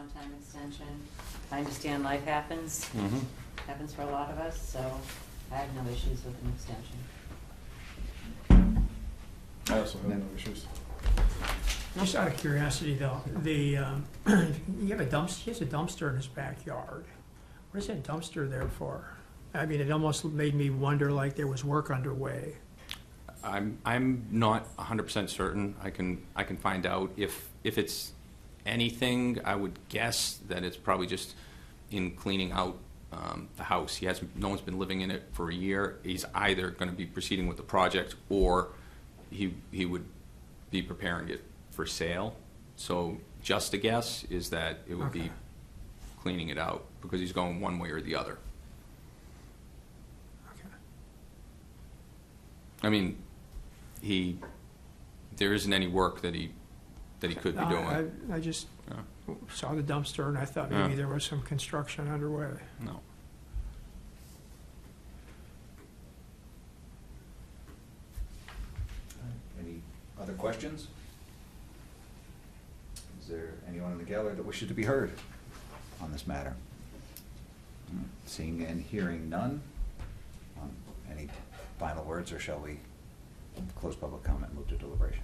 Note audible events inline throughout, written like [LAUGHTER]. time extension. I understand life happens, Mm-hmm. Mhm. happens for a lot of us, so I have no issues with an extension. I also have no issues. Just out of curiosity though, the, um, [CLEARS THROAT] you have a dumpster, he has a dumpster in his backyard. What is that dumpster there for? I mean, it almost made me wonder like there was work underway. I'm, I'm not 100% certain. I can, I can find out. If, if it's anything, I would guess that it's probably just in cleaning out um, the house. He hasn't, no one's been living in it for a year. He's either going to be proceeding with the project or he, he would be preparing it for sale. So just a guess is that it would be Okay. cleaning it out because he's going one way or the other. Okay. I mean, he, there isn't any work that he, that he could be No, doing. [LAUGHS] I I just Yeah. saw the dumpster and I thought maybe Yeah. there was some construction underway. No. Any other questions? Is there anyone in the gallery that wishes to be heard on this matter? Seeing and hearing none. Um, Any final words, or shall we close public comment and move to deliberation?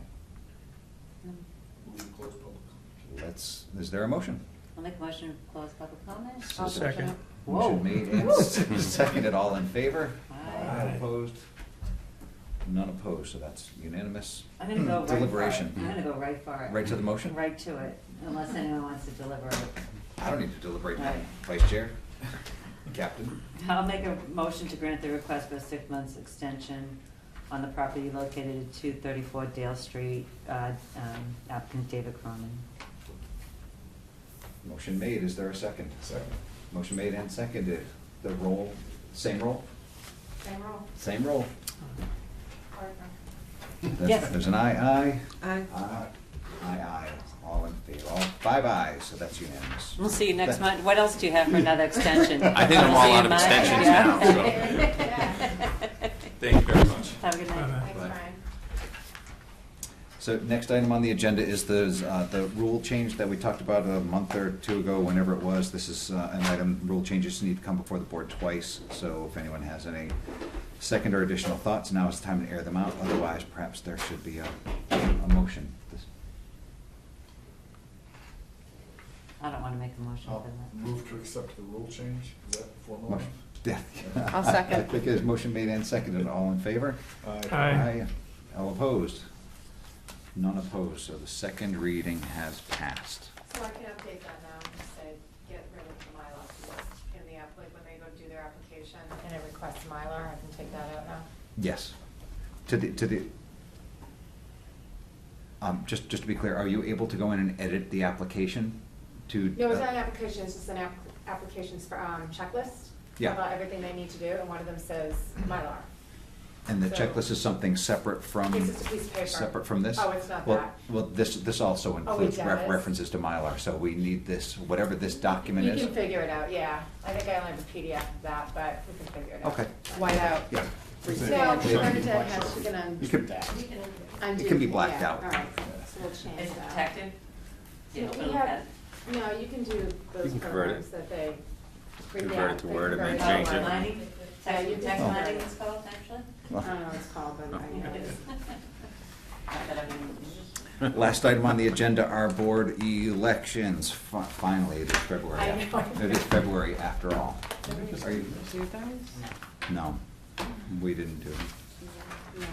Let's, is there a motion? I'll make a motion to close public comment. S- I'll second. it. Whoa. Motion made and s- [LAUGHS] seconded, all in favor? Aye. Opposed? None opposed, so that's unanimous. I'm gonna [CLEARS THROAT] go right for it. Deliberation. I'm gonna go right for it. Right to the motion? Right to it, unless anyone wants to deliver it. I don't need to deliberate, Right. Vice Chair, Captain. I'll make a motion to grant the request for a six months extension on the property located at two thirty-four Dale Street, uh, um, applicant David Cronin. Motion made, is there a second? Second. Motion made and seconded, the roll, same roll? Same roll. Same roll. There's- Yes. There's an aye, Aye. aye. Aye. Aye, aye, all in favor, all, five ayes, so that's unanimous. We'll see you next That- month. What else do you have for another extension? [LAUGHS] I think I'm all out of Mine? extensions Yeah. now, [LAUGHS] Thank you very much. Have a good night. Bye-bye. Thanks, Brian. So next item on the agenda is the, uh, the rule change that we talked about a month or two ago, whenever it was. This is uh, an item, rule changes need to come before the board twice, so if anyone has any second or additional thoughts, now is the time to air them out. Otherwise, perhaps there should be a, a motion. This- I don't want to make a motion I'll for that. move to accept the rule change. Is that formal? motion- Yeah. [LAUGHS] I'll I second. think there's motion made and seconded. All in favor? Aye. All opposed? None opposed, so the second reading has passed. So I can update that now, just say, get rid of the Mylar piece in the applic, when they go to do their application and it requests Mylar, I can take that out now. Yes. To the, to the, um, just, just to be clear, are you able to go in and edit the application to? uh, No, it's not an application, it's just an app, applications for, um, checklist. Yeah. About everything they need to do, and one of them says Mylar. And the checklist is something separate from? It's just a piece of paper. Separate from this? Oh, it's not Well- that. Oh, Well, this, this also includes ref- does? references to Mylar, so we need this, whatever this document You is. can figure it out, yeah. I think I only have a PDF of that, but we can figure it out. Okay. White out. Yeah, No, because Yeah. Bernadette has, she's gonna you could, undo. can be yeah, blacked out. All right, so we'll change that. Yeah, Yeah, we little have- bit. No, you can do can those convert it. programs that they. bring Convert it down, to they Word and convert then it change to it. online. Mining? Yeah, you Text, can text Oh. mining it's called, actually? [LAUGHS] I don't know what it's called, Oh, but I know it is. Not that I'm in- Last item on the agenda are board elections. Fi- Finally, it is February. I know. It is February after all. Are you- Do those? No, we didn't do them. No.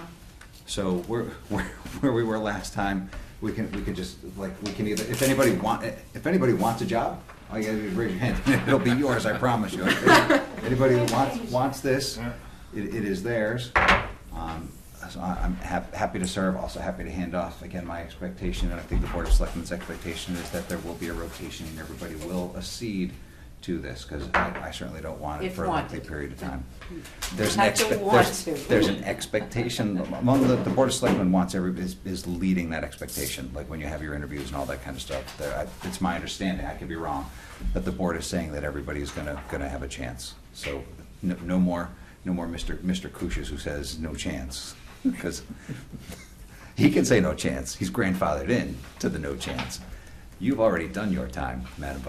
So we're, [LAUGHS] we're- where we were last time, we can, we can just, like, we can either, if anybody want, if anybody wants a job, all you gotta do is raise your hand. [LAUGHS] It'll be yours, I promise you. Anybody who wants, wants this, it, it is theirs. Um, So I- I'm hap- happy to serve, also happy to hand off. Again, my expectation, and I think the Board of Selectmen's expectation is that there will be a rotation and everybody will accede to this, because I I certainly don't want it If for a lengthy wanted. period of time. There's an Have to expect, want there's, to. there's an expectation, among the, the Board of Selectmen wants every, is, is leading that expectation, like when you have your interviews and all that kind of stuff. There, I- It's my understanding, I could be wrong, that the board is saying that everybody's gonna, gonna have a chance. So, no, no more, no more Mr. Mr. Kuchas who says no chance, because [LAUGHS] he can say no chance, he's grandfathered in to the no chance. You've already done your time, Madam